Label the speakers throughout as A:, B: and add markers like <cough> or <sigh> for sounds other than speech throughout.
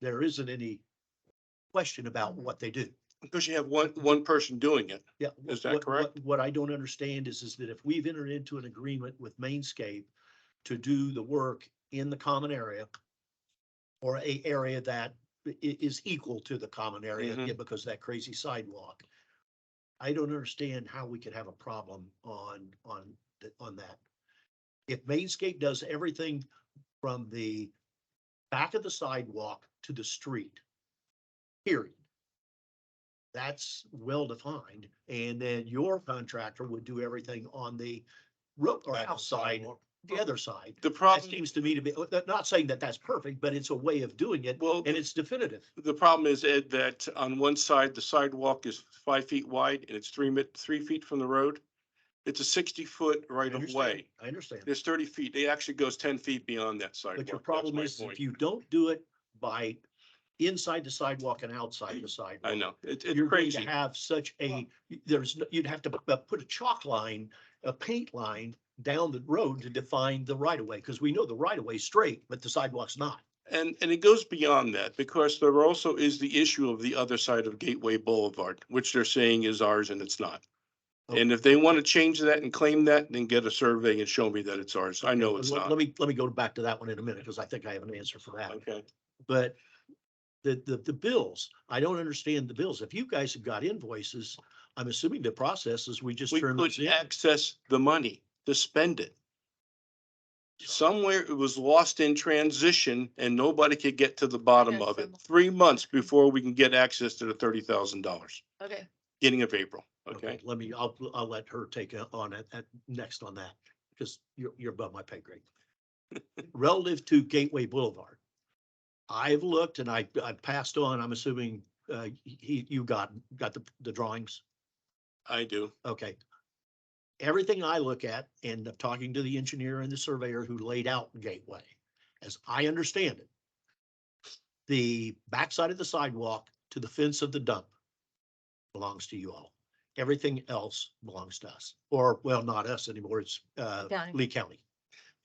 A: there isn't any question about what they do.
B: Because you have one, one person doing it.
A: Yeah.
B: Is that
A: what-
B: correct?
A: what- What I don't understand is, is that if we've entered into an agreement with Mainscape to do the work in the common area or a area that i- is equal to the common area,
B: Mhm.
A: yeah, because that crazy sidewalk. I don't understand how we could have a problem on, on, th- on that. If Mainscape does everything from the back of the sidewalk to the street, period that's well defined. And then your contractor would do everything on the road or outside, the other side.
B: The
A: That
B: problem,
A: seems to me to be, uh, not saying that that's perfect, but it's a way of doing it
B: well,
A: and it's definitive.
B: the problem is, Ed, that on one side, the sidewalk is five feet wide and it's three, mi- three feet from the road. It's a sixty-foot
A: I
B: right of
A: understand.
B: way.
A: I understand.
B: There's thirty feet. It actually goes ten feet beyond that sidewalk.
A: But your
B: That's
A: problem
B: my
A: is if
B: point.
A: you don't do it by inside the sidewalk and outside the
B: I
A: sidewalk.
B: know. It- It's
A: You're going to
B: crazy.
A: have such a, there's, no- you'd have to p- uh, put a chalk line, a paint line down the road to define the right of way. Cause we know the right of way is straight, but the sidewalk's not.
B: And, and it goes beyond that because there also is the issue of the other side of Gateway Boulevard, which they're saying is ours and it's not. And if they want to change that and claim that, then get a survey and show me that it's ours. I know it's
A: Let-
B: not.
A: Let me, let me go back to that one in a minute, because I think I have an answer for that.
B: Okay.
A: But the, the, the bills, I don't understand the bills. If you guys have got invoices, I'm assuming the process is we just
B: We
A: turn those in.
B: couldn't access the money to spend it. Somewhere it was lost in transition and nobody could get to the bottom of it. Three months before we can get access to the thirty thousand dollars,
C: Okay,
B: beginning of April, okay?
A: Let me, I'll, I'll let her take a- on it, at, next on that, because you're, you're above my pay
B: <laughs>
A: grade. Relative to Gateway Boulevard, I've looked and I, I passed on, I'm assuming, uh, he, you got, got the, the drawings?
B: I do.
A: Okay. Everything I look at and of talking to the engineer and the surveyor who laid out Gateway, as I understand it, the backside of the sidewalk to the fence of the dump belongs to you all. Everything else belongs to us, or well, not us anymore. It's uh,
C: County.
A: Lee County.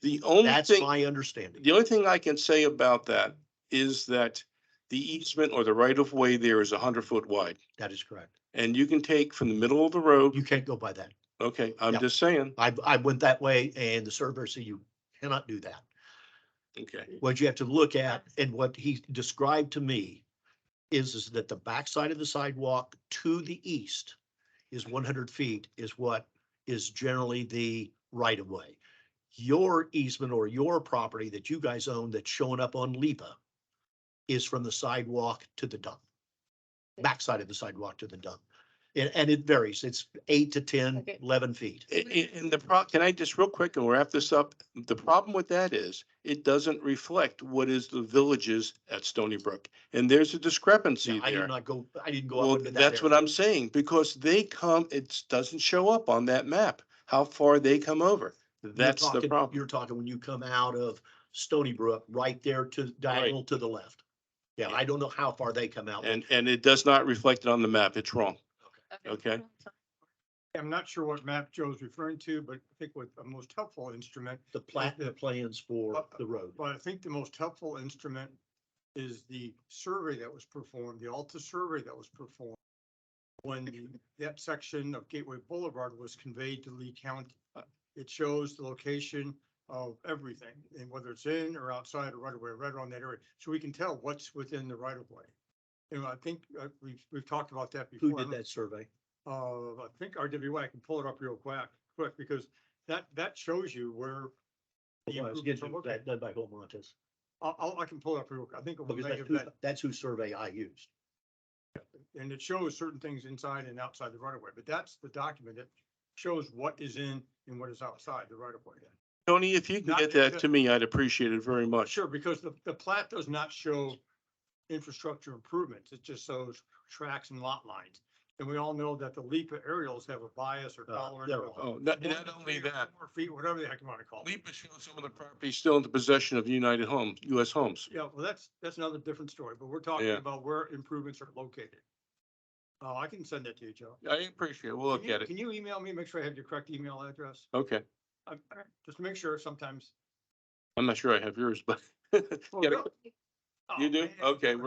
B: The only
A: That's
B: thing.
A: my understanding.
B: The only thing I can say about that is that the easement or the right of way there is a hundred foot wide.
A: That is correct.
B: And you can take from the middle of the road,
A: You can't go by that.
B: okay, I'm
A: Yeah.
B: just saying,
A: I, I went that way and the surveyor said you cannot do that.
B: okay.
A: what you have to look at and what he described to me is, is that the backside of the sidewalk to the east is one hundred feet is what is generally the right of way. Your easement or your property that you guys own that's showing up on LIPA is from the sidewalk to the dump. Backside of the sidewalk to the dump. And, and it varies. It's eight to 10,
C: Okay.
A: 11 feet.
B: A- a- And the pro, can I just real quick and we'll wrap this up? The problem with that is it doesn't reflect what is the villages at Stony Brook. And there's a discrepancy
A: Yeah, I did
B: there.
A: not go, I didn't go. up
B: Well,
A: into that
B: that's
A: area.
B: what I'm saying, because they come, it doesn't show up on that map, how far they come over.
A: You're
B: That's the
A: talking-
B: problem.
A: You're talking when you come out of Stony Brook, right there to diagonal to the left. Yeah, I don't know how far they come out.
B: And, and it does not reflect it on the map. It's wrong. Okay.
D: I'm not sure what map Joe's referring to, but I think what the most helpful instrument,
A: The plat, the plans for the road.
D: but I think the most helpful instrument is the survey that was performed, the Alta survey that was performed when the- that section of Gateway Boulevard was conveyed to Lee County. uh, It shows the location of everything and whether it's in or outside or right away, right around that area. So we can tell what's within the right of way. And I think uh, we've, we've talked about that before.
A: Who
D: I
A: did
D: don't-
A: that survey?
D: uh, I think RWA, I can pull it up real quick, quick, because that, that shows you where. the
A: Well, I was
D: improvements
A: getting
D: are located.
A: That done by Home Montes,
D: I'll, I'll, I can pull it up real quick. I think. it was
A: because that's
D: negative
A: who,
D: that-
A: that's who survey I used.
D: And it shows certain things inside and outside the right of way, but that's the document that shows what is in and what is outside the right of way.
B: Tony, if you can
D: Not-
B: get that to me, I'd appreciate it very much.
D: Sure, because the, the plat does not show infrastructure improvements. It just shows tracks and lot lines. And we all know that the LIPA aerials have a bias or
A: Uh,
D: tolerance.
A: they're-
D: of
B: Oh, not,
D: one
B: not
D: to
B: only
D: three or
B: that,
D: four Feet, whatever the heck you want to call it.
B: LIPA shows some of the property still in the possession of United Homes, US Homes.
D: Yeah, well, that's, that's another different story, but we're talking
B: Yeah.
D: about where improvements are located. Uh, I can send that to you, Joe.
B: I appreciate it. We'll
D: Can
B: look
D: you-
B: at it.
D: Can you email me, make sure I have your correct email address?
B: Okay.
D: I- I- Just make sure sometimes.
B: I'm not sure I have yours, but
D: Oh,
B: Get it?
D: really? Oh,
B: You do?
D: man.
B: Okay.